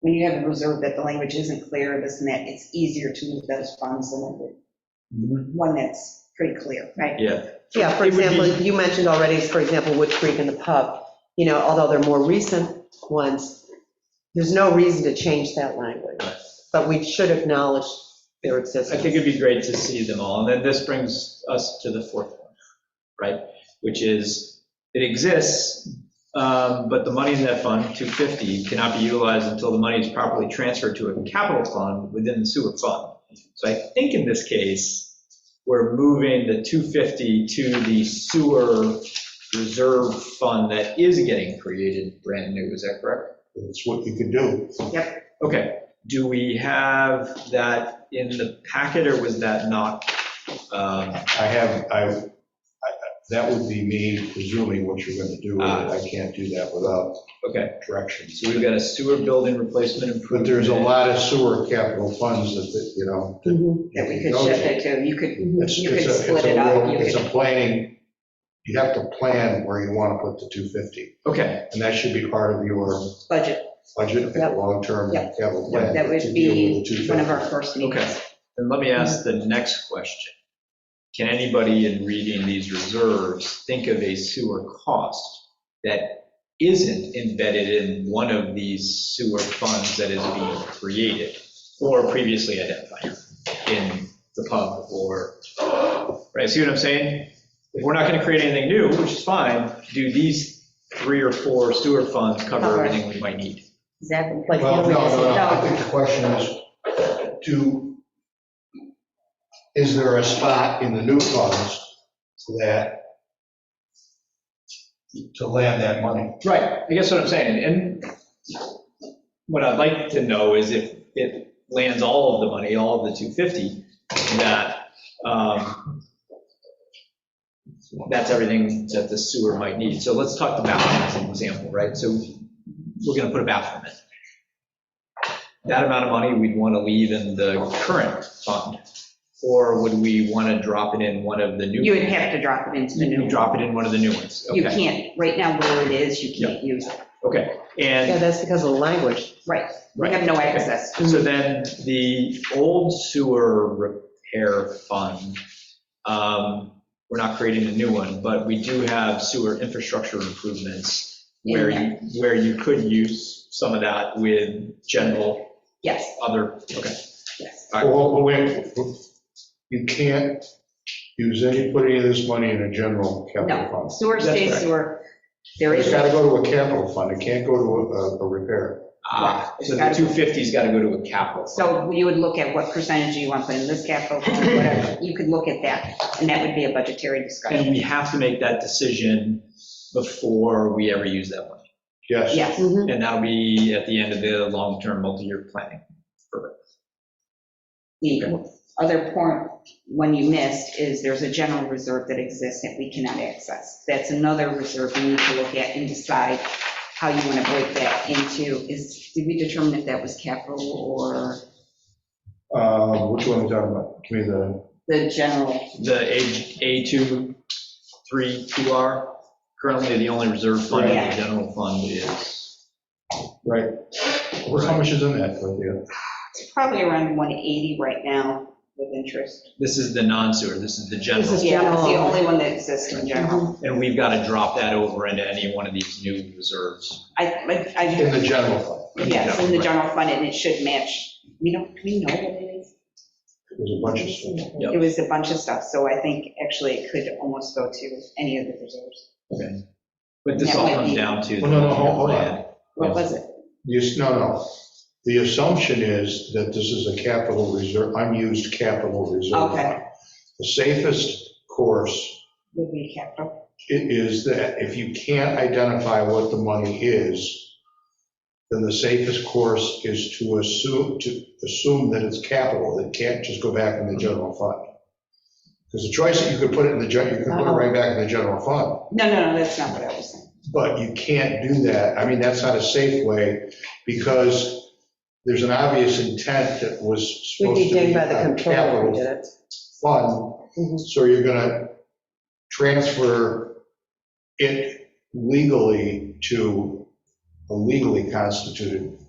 When you have observed that the language isn't clear, this and that, it's easier to move those funds than one that's pretty clear. right? Yeah, Yeah, for It would be- example, you mentioned already, for example, Wood Creek and the pub, you know, although they're more recent ones, there's no reason to change that language, but we should acknowledge their I existence. think it'd be great to see them all. And then this brings us to the fourth one, right? Which is, it exists, um, but the money in that fund, 250, cannot be utilized until the money is properly transferred to a capital fund within the sewer fund. So I think in this case, we're moving the 250 to the sewer reserve fund that is getting created brand new. Is that correct? It's what you can do. Okay, do we have that in the packet, or was that not? um, I have, I, I- that would be me presuming what you're going to do with it. I can't do that without Okay, directions. so we've got a sewer building replacement But improvement. there's a lot of sewer capital funds that- that, you know. Mhm. That we could shift it to, you could, It's- you could it's a- it's a split it up. real- you It's could- a planning, you have to plan where you want to put the 250. Okay, And that should be part of your Budget, budget, Yep. long-term Yep. capital plan. that to would deal be with the one 250. of our first meetings. then let me ask the next question. Can anybody in reading these reserves think of a sewer cost that isn't embedded in one of these sewer funds that is being created or previously identified in the pub or, right, see what I'm saying? If we're not going to create anything new, which is fine, do these three or four sewer funds cover Cover. everything we might need? Exactly. Like, Well, can't no, we just- no, no, I think the question is, do, is there a spot in the new funds that, to land that money? Right, I guess what I'm saying, and what I'd like to know is if it lands all of the money, all of the 250, that, um, that's everything that the sewer might need. So let's talk the bathroom as an example, right? So we're gonna put a bathroom in. That amount of money we'd wanna leave in the current fund, or would we wanna drop it in one of the new? You would have to drop it into the new. Drop it in one of the new ones, You okay, can't, right now where it is, you can't use it. okay. And Yeah, that's because of the language. Right, we Right. have no access. So then the old sewer repair fund, um, we're not creating a new one, but we do have sewer infrastructure improvements where you, where you could use some of that with general Yes, other, okay. yes. Well, well, wait, you can't use any, put any of this money in a general capital No, fund. sewer That's stays correct. sewer. There It's is, got to go to a capital fund, it can't go to a- a repair. Ah, So the 250's got to go to a capital. so you would look at what percentage you want to put in this capital, fund, whatever. You could look at that, and that would be a budgetary discussion. And we have to make that decision before we ever use that one. Yes. Yes, Mhm. And that'll be at the end of the long-term multi-year planning. the other point, one you missed, is there's a general reserve that exists that we cannot access. That's another reserve you need to look at and decide how you want to break that into. Is, did we determine if that was capital or Uh, Which one are we talking about? Give me the, the general? The A, A2, 3, 2R, currently the only reserve fund in the Yeah. general fund is, right. What's- How much is in that, Dorothea? It's probably around 180 right now with interest. this is the non-sewer, this is the This general. is- Yeah, it's the General. only one that exists in general. And we've got to drop that over into any one of these new reserves. I, I- In the I, general fund? yes, in the general fund, and it should match, we don't, we know what it is. There's a bunch of stuff. Yep. It was a bunch of stuff, so I think actually it could almost go to any of the reserves. But this That all might comes be- down to. the Well, no, no, hold- hold on. plan. What was it? You, s- no, no. The assumption is that this is a capital reserve, unused capital reserve. Okay. fund. The safest course Would be capital? i- is that if you can't identify what the money is, then the safest course is to assume, to assume that it's capital, that it can't just go back in the general fund. Because the choice, that you could put it in the, gen- you could put it right back in the general fund. No, no, no, that's not what I was saying. But you can't do that. I mean, that's not a safe way because there's an obvious intent that was We'd supposed be to be dinged by the a controller who capital did it. fund. Mhm. So you're going to transfer it legally to a legally constituted